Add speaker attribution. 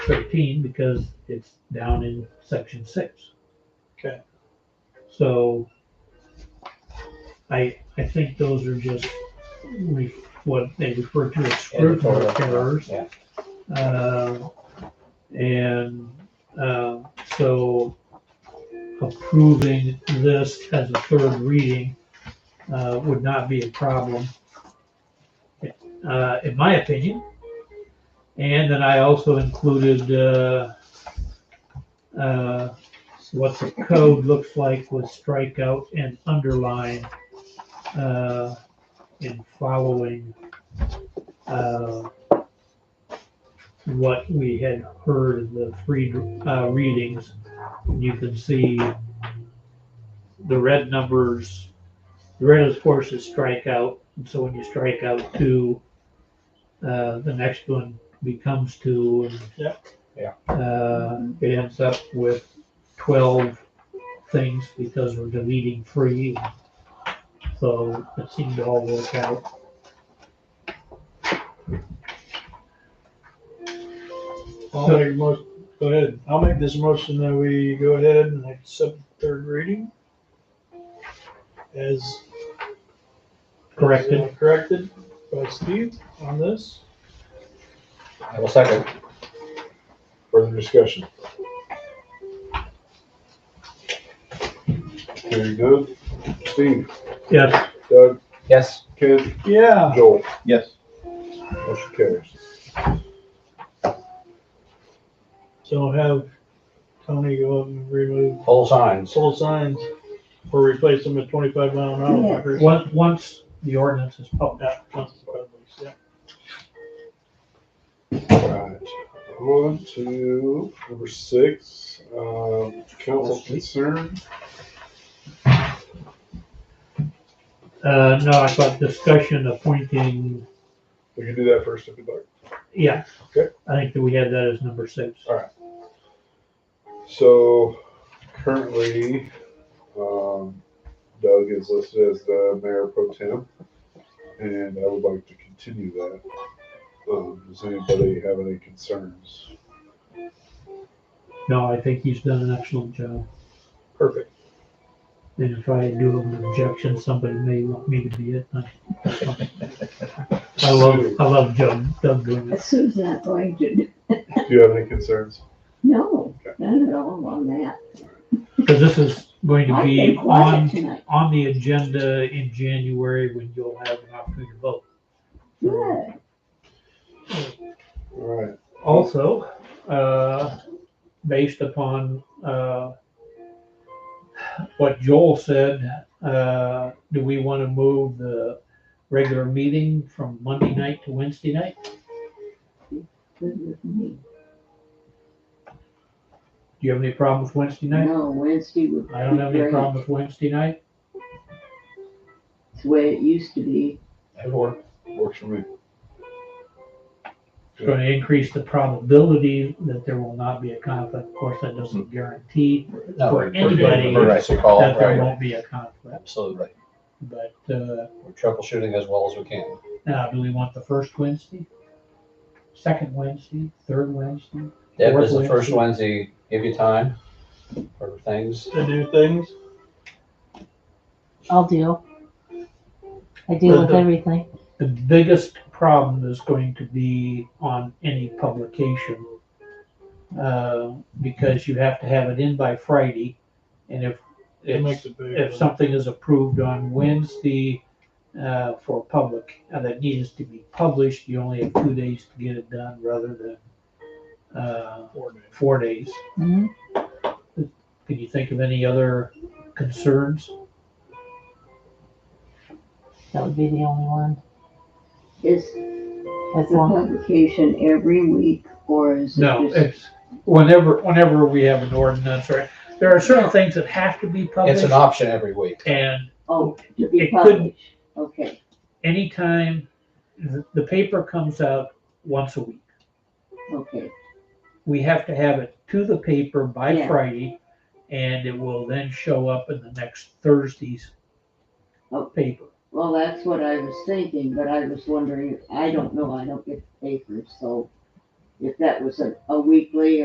Speaker 1: thirteen because it's down in section six.
Speaker 2: Okay.
Speaker 1: So I, I think those are just re- what they refer to as scrivener's errors.
Speaker 2: Yeah,
Speaker 1: Uh, And uh, so approving this as a third reading uh, would not be a problem, uh, in my opinion. And then I also included uh, uh, what the code looks like with strikeout and underline uh, in following uh, what we had heard in the free uh, readings. You can see the red numbers, the red of course is strikeout. And so when you strike out two, uh, the next one becomes two. And,
Speaker 2: Yep, yeah.
Speaker 1: Uh, it ends up with 12 things because we're deleting three. So it seemed to all work out.
Speaker 2: I'll make most, go ahead, I'll make this motion that we go ahead and accept third reading. As.
Speaker 1: Corrected.
Speaker 2: as, uh, Corrected by Steve on this.
Speaker 3: I will second.
Speaker 4: Further discussion? Very good. Steve,
Speaker 1: Yes.
Speaker 4: Doug,
Speaker 3: Yes.
Speaker 4: Ken,
Speaker 2: Yeah,
Speaker 4: Joel,
Speaker 3: Yes.
Speaker 4: motion carries.
Speaker 2: so have Tony go up and remove
Speaker 3: All signs.
Speaker 2: sold signs or replace them with twenty-five mile an hour markers.
Speaker 1: Once, once the ordinance is published.
Speaker 2: Yeah, that's the problem, yeah.
Speaker 4: Alright, on to number six, um, council concern.
Speaker 1: Uh, no, I thought discussion appointing,
Speaker 4: We can do that first if you'd like.
Speaker 1: yeah.
Speaker 4: Okay.
Speaker 1: I think that we had that as number six.
Speaker 4: So currently, um, Doug is listed as the mayor pro tem, and I would like to continue that. Um, does anybody have any concerns?
Speaker 1: No, I think he's done an excellent job.
Speaker 2: Perfect.
Speaker 1: And if I do an objection, somebody may want me to be it. I love, I love Doug, Doug doing it.
Speaker 5: Sue's not going to, do-
Speaker 4: Do you have any concerns?
Speaker 5: no, not at all on that.
Speaker 1: Because this is going to
Speaker 5: I've
Speaker 1: be
Speaker 5: been quiet
Speaker 1: on,
Speaker 5: tonight.
Speaker 1: on the agenda in January when you'll have an opportunity to vote.
Speaker 5: Good.
Speaker 4: All right,
Speaker 1: Also, uh, based upon, uh, what Joel said, uh, do we want to move the regular meeting from Monday night to Wednesday night?
Speaker 5: Good with me.
Speaker 1: Do you have any problem with Wednesday night?
Speaker 5: No, Wednesday would be
Speaker 1: I don't have any
Speaker 5: great.
Speaker 1: problem with Wednesday night.
Speaker 5: It's the way it used to be.
Speaker 3: That'd work.
Speaker 4: works for me.
Speaker 1: It's going to increase the probability that there will not be a conflict. Of course, that doesn't guarantee
Speaker 3: No,
Speaker 1: For
Speaker 3: we're doing an
Speaker 1: anybody
Speaker 3: Emergency call,
Speaker 1: that there
Speaker 3: right?
Speaker 1: won't be a conflict,
Speaker 3: Absolutely.
Speaker 1: but, uh,
Speaker 3: We're troubleshooting as well as we can.
Speaker 1: now, Uh, do we want the first Wednesday? Second Wednesday, third Wednesday?
Speaker 3: Deb
Speaker 1: Fourth
Speaker 3: is the first
Speaker 1: Wednesday.
Speaker 3: Wednesday, give you time for things.
Speaker 2: To do things,
Speaker 6: I'll deal. I deal with everything.
Speaker 1: The biggest problem is going to be on any publication. uh, Because you have to have it in by Friday, and if,
Speaker 2: it
Speaker 1: if,
Speaker 2: makes it big.
Speaker 1: if something is approved on Wednesday uh, for public, uh, that needs to be published, you only have two days to get it done rather than uh,
Speaker 2: Four days.
Speaker 1: four days.
Speaker 6: Mhm.
Speaker 1: Can you think of any other concerns?
Speaker 6: That would be the only one.
Speaker 5: Is
Speaker 6: As
Speaker 5: the
Speaker 6: long,
Speaker 5: publication every week or is it
Speaker 1: No,
Speaker 5: just-
Speaker 1: it's whenever, whenever we have an ordinance, or There are certain things that have to be
Speaker 3: It's
Speaker 1: published
Speaker 3: an option every week.
Speaker 1: and
Speaker 5: Oh, to
Speaker 1: it
Speaker 5: be
Speaker 1: could-
Speaker 5: published. Okay,
Speaker 1: anytime the, the paper comes out once a week.
Speaker 5: okay.
Speaker 1: We have to have it to the paper by
Speaker 5: Yeah.
Speaker 1: Friday and it will then show up in the next Thursday's
Speaker 5: Oh.
Speaker 1: paper.
Speaker 5: Well, that's what I was thinking, but I was wondering, I don't know, I don't get the papers, so if that was a, a weekly